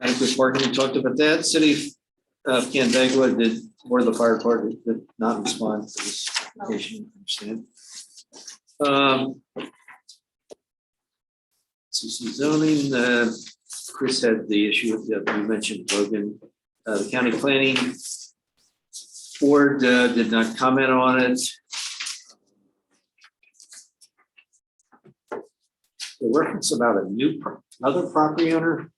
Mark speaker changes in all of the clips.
Speaker 1: Adequate parking, we talked about that. City of Candegua Uh, did, or the fire department did not respond to this application, I understand. Um, CC zoning, uh, Chris had the issue that you mentioned, Logan, Uh, the county planning board uh, did not comment on it. The reference about a new, pro- another property owner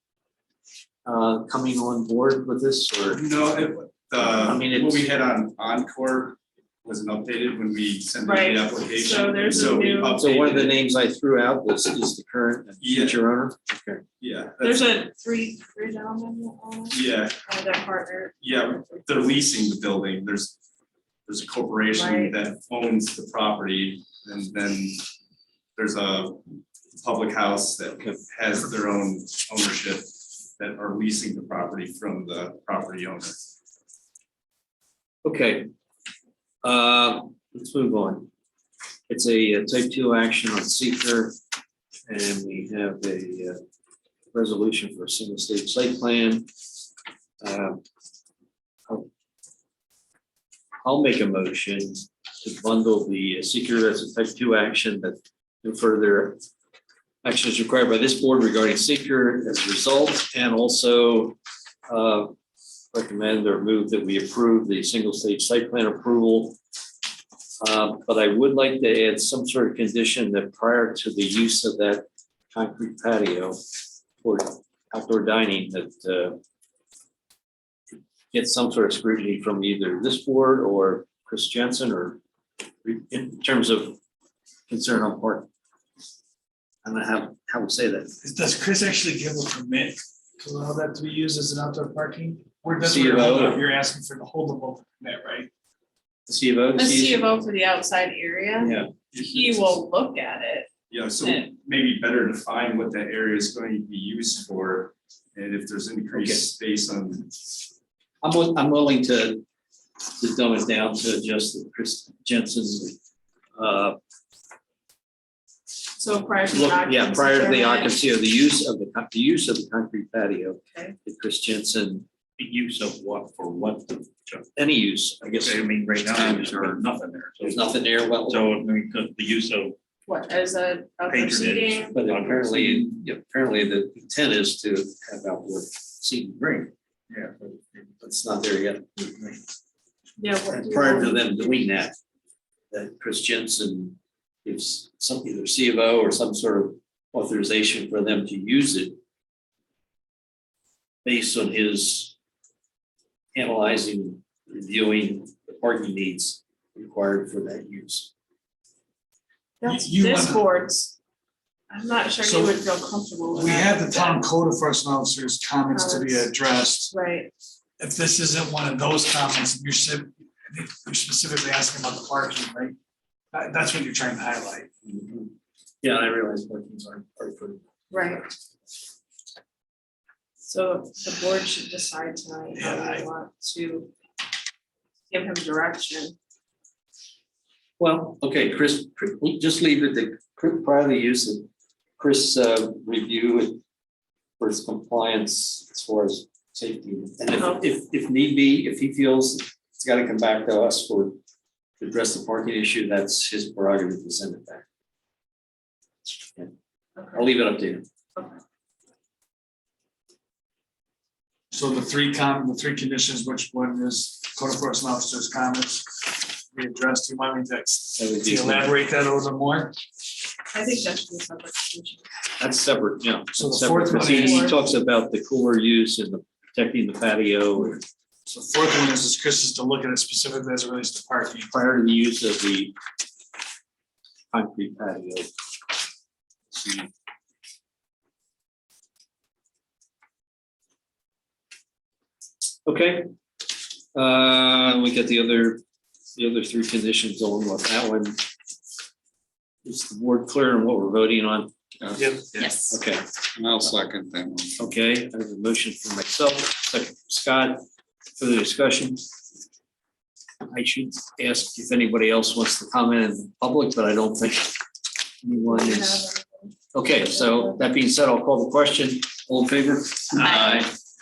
Speaker 1: uh, coming on board with this or,
Speaker 2: No, it,
Speaker 1: I mean,
Speaker 2: the, what we
Speaker 1: it's-
Speaker 2: had on Encore wasn't updated when we sent in
Speaker 3: Right,
Speaker 2: the application.
Speaker 3: so there's a
Speaker 2: so we
Speaker 3: new-
Speaker 1: so one of the
Speaker 2: updated it.
Speaker 1: names I threw out was, is the current and
Speaker 2: Yeah.
Speaker 1: future owner? Okay.
Speaker 2: Yeah,
Speaker 3: There's
Speaker 2: that's,
Speaker 3: a three, three gentlemen on it,
Speaker 2: yeah,
Speaker 3: uh, that partner.
Speaker 2: yeah, they're leasing the building, there's, there's a corporation
Speaker 3: Right.
Speaker 2: that owns the property, and then there's a public house that has their own ownership that are leasing the property from the property owner.
Speaker 1: Okay. Uh, let's move on. It's a uh, type two action on seeker. And we have a uh, resolution for a single state site plan. Uh, I'll- I'll make a motion to bundle the seeker as a type two action that no further action is required by this board regarding seeker as a result and also uh, recommend or move that we approve the single stage site plan approval. Uh, But I would like to add some sort of condition that prior to the use of that concrete patio for outdoor dining that uh, get some sort of scrutiny from either this board or Chris Jensen or in terms of concern on part. I don't know how, how we say that.
Speaker 4: Does Chris actually give a permit to allow that to be used as an outdoor parking? Or does
Speaker 1: C
Speaker 4: it,
Speaker 1: of O.
Speaker 4: you're asking for the holdable permit, right?
Speaker 1: The C of O.
Speaker 3: A C of O for the outside area,
Speaker 1: Yeah,
Speaker 3: he will look at it.
Speaker 2: Yeah, so
Speaker 3: Yeah.
Speaker 2: maybe better define what that area is going to be used for, and if there's increased space on,
Speaker 1: I'm, wi- I'm willing to, to dumb it down to just the Chris Jensen's. uh,
Speaker 3: So prior to the
Speaker 1: look-
Speaker 3: occupancy.
Speaker 1: Yeah, prior to the
Speaker 3: permit,
Speaker 1: occupancy of the use of the, con- the use of the concrete patio.
Speaker 3: Okay.
Speaker 1: The Chris Jensen,
Speaker 5: The use of what for what? the-
Speaker 1: any use, I guess,
Speaker 5: I mean, right now, there's nothing there.
Speaker 1: there's nothing there, well,
Speaker 5: So, I mean, 'cause the use of
Speaker 3: What, as a, a
Speaker 5: Patronage.
Speaker 3: proceeding,
Speaker 5: uh,
Speaker 1: but apparently, yeah, apparently the intent is to have outdoor seating green.
Speaker 5: Yeah.
Speaker 1: But It's not there yet.
Speaker 3: yeah, what do
Speaker 1: And
Speaker 3: you
Speaker 1: prior to
Speaker 3: want?
Speaker 1: them doing that, that Chris Jensen gives some either C of O or some sort of authorization for them to use it based on his analyzing, reviewing the parking needs required for that use.
Speaker 3: That's
Speaker 4: You
Speaker 3: this
Speaker 4: wanna-
Speaker 3: board's. I'm not sure
Speaker 4: So
Speaker 3: he would feel comfortable with
Speaker 4: We
Speaker 3: that.
Speaker 4: had the town code enforcement officer's comments to be addressed.
Speaker 3: Right,
Speaker 4: If this isn't one of those comments, you're si- I think you're specifically asking about the parking, right? That- that's what you're trying to highlight.
Speaker 1: Yeah, I realize parkings aren't, are for
Speaker 3: right. So the board should decide tonight how
Speaker 4: Yeah,
Speaker 3: they want to give him direction.
Speaker 1: Well, okay, Chris, just leave it to Chris- prior to use of Chris uh, review it for its compliance as far as safety. And if, if, if need be, if he feels it's got to come back to us for to address the parking issue, that's his prerogative to send it back. I'll
Speaker 3: Okay.
Speaker 1: leave it up to him.
Speaker 4: So the three com, the three conditions, which one is code enforcement officer's comments be addressed? Do you want me to ex-
Speaker 1: That would
Speaker 4: to
Speaker 1: be-
Speaker 4: elaborate that a little more?
Speaker 3: I think that should be a separate decision.
Speaker 1: That's separate, yeah.
Speaker 4: So the
Speaker 1: Separate.
Speaker 4: fourth one
Speaker 1: He- He
Speaker 3: is-
Speaker 1: talks about the cooler use and the protecting the patio and
Speaker 4: So fourth one is, is Chris is to look at it specifically as it relates to parking.
Speaker 1: prior to the use of the concrete patio. See. Okay. Uh, we got the other, the other three conditions on with that one. Is the board clear on what we're voting on?
Speaker 3: Yes.
Speaker 1: Okay,
Speaker 6: And I'll second that one.
Speaker 1: okay, I have a motion for myself, second from Scott, further discussion. I should ask if anybody else wants to comment in public, but I don't think anyone is. Okay, so that being said, I'll call the question. All in favor?
Speaker 3: Aye.